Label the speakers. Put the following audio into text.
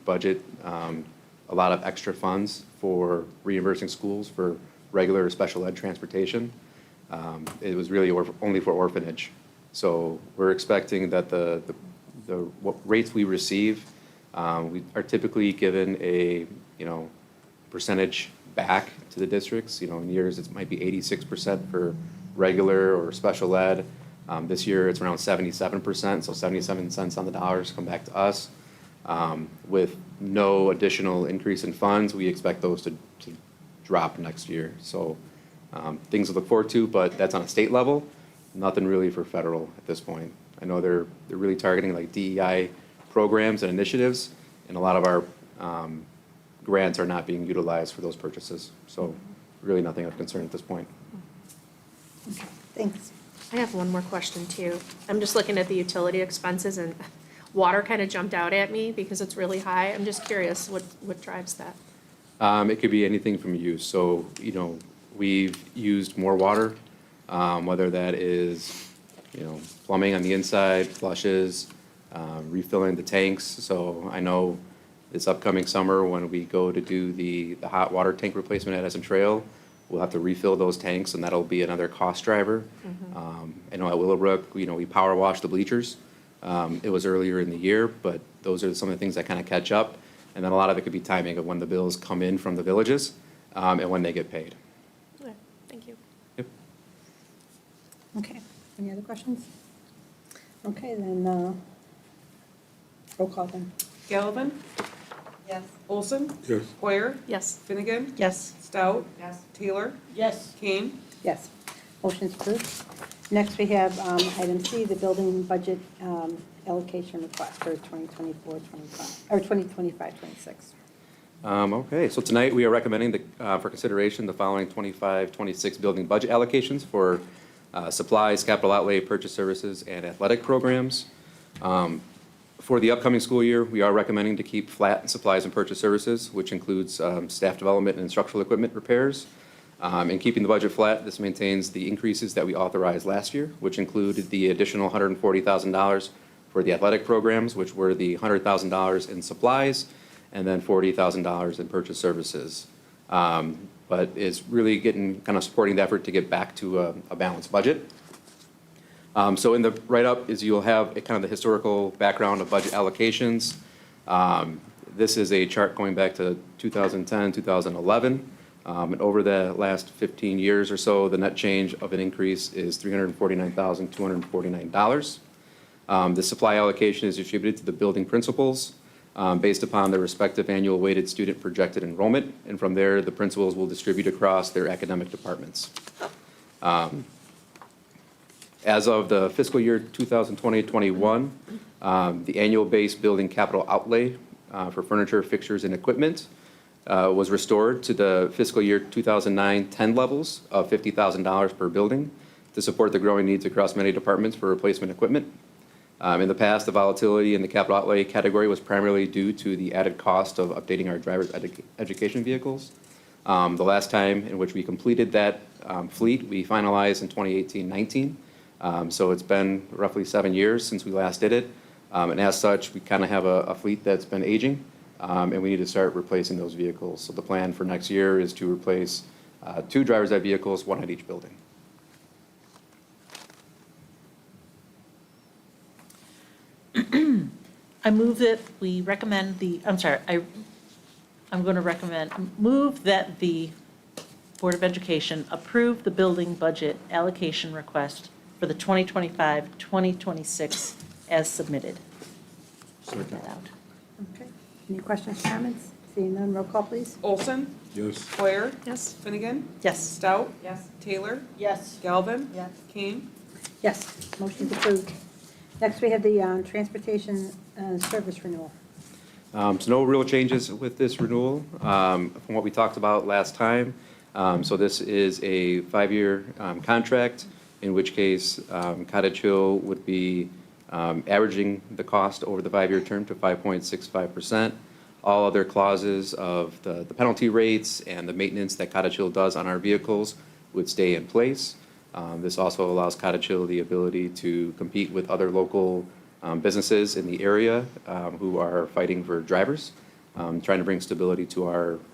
Speaker 1: budget um, a lot of extra funds for reimbursing schools for regular or special ed transportation. Um, It was really orph- only for orphanage. So we're expecting that the, the- the what rates we receive, um, we are typically given a, you know, percentage back to the districts. You know, in years, it might be eighty-six percent for regular or special ed. Um, This year, it's around seventy-seven percent, so seventy-seven cents on the dollars come back to us. Um, With no additional increase in funds, we expect those to, to drop next year. So um, things to look forward to, but that's on a state level, nothing really for federal at this point. I know they're, they're really targeting like DEI programs and initiatives, and a lot of our um, grants are not being utilized for those purchases. So really nothing of concern at this point.
Speaker 2: Thanks.
Speaker 3: I have one more question too. I'm just looking at the utility expenses and water kind of jumped out at me because it's really high. I'm just curious what, what drives that?
Speaker 1: Um, it could be anything from use. So, you know, we've used more water, um, whether that is, you know, plumbing on the inside, flushes, um, refilling the tanks. So I know this upcoming summer when we go to do the, the hot water tank replacement at Essen Trail, we'll have to refill those tanks and that'll be another cost driver. Um, I know at Willowbrook, you know, we power wash the bleachers. Um, It was earlier in the year, but those are some of the things that kind of catch up. And then a lot of it could be timing of when the bills come in from the villages um, and when they get paid.
Speaker 3: Okay, Thank you.
Speaker 1: Yep.
Speaker 2: Okay, any other questions? Okay, then, uh, roll call then.
Speaker 4: Gallivan?
Speaker 2: Yes.
Speaker 4: Olson?
Speaker 5: Yes.
Speaker 4: Hoyer?
Speaker 3: Yes.
Speaker 4: Finnegan?
Speaker 2: Yes.
Speaker 4: Stout? Yes. Taylor?
Speaker 6: Yes,
Speaker 4: Kane?
Speaker 2: Yes, motion's approved. Next, we have um, item C, the building budget um, allocation request for 2024, 25, or 2025, 26.
Speaker 1: Um, Okay, so tonight we are recommending the, uh, for consideration the following 25, 26 building budget allocations for uh, supplies, capital outlay, purchase services, and athletic programs. Um, For the upcoming school year, we are recommending to keep flat supplies and purchase services, which includes um, staff development and instructional equipment repairs. Um, And keeping the budget flat, this maintains the increases that we authorized last year, which included the additional $140,000 for the athletic programs, which were the $100,000 in supplies, and then $40,000 in purchase services. Um, But it's really getting, kind of supporting the effort to get back to a a balanced budget. Um, So in the write-up is you'll have a kind of the historical background of budget allocations. Um, This is a chart going back to 2010, 2011. Um, And over the last 15 years or so, the net change of an increase is $349,249. Um, The supply allocation is distributed to the building principals um, based upon their respective annual weighted student projected enrollment. And from there, the principals will distribute across their academic departments. As of the fiscal year 2020-21, um, the annual base building capital outlay uh, for furniture, fixtures, and equipment uh, was restored to the fiscal year 2009-10 levels of $50,000 per building to support the growing needs across many departments for replacement equipment. Um, In the past, the volatility in the capital outlay category was primarily due to the added cost of updating our driver's edu- education vehicles. Um, The last time in which we completed that um, fleet, we finalized in 2018-19. Um, So it's been roughly seven years since we last did it. Um, And as such, we kind of have a a fleet that's been aging, um, and we need to start replacing those vehicles. So the plan for next year is to replace uh, two driver's ed vehicles, one at each building.
Speaker 6: I move that we recommend the, I'm sorry, I, I'm going to recommend, move that the Board of Education approve the building budget allocation request for the 2025-2026 as submitted. That out.
Speaker 2: Okay, any questions, comments? Seeing none, roll call, please.
Speaker 4: Olson?
Speaker 5: Yes.
Speaker 4: Hoyer?
Speaker 3: Yes.
Speaker 4: Finnegan?
Speaker 6: Yes.
Speaker 4: Stout? Yes. Taylor?
Speaker 6: Yes.
Speaker 4: Galvin?
Speaker 2: Yes.
Speaker 4: Kane?
Speaker 2: Yes, motion's approved. Next, we have the um, transportation uh, service renewal.
Speaker 1: Um, So no real changes with this renewal um, from what we talked about last time. Um, So this is a five-year um, contract, in which case um, Cottage Hill would be um, averaging the cost over the five-year term to 5.65%. All other clauses of the the penalty rates and the maintenance that Cottage Hill does on our vehicles would stay in place. Um, This also allows Cottage Hill the ability to compete with other local um, businesses in the area um, who are fighting for drivers. um, trying to bring stability to our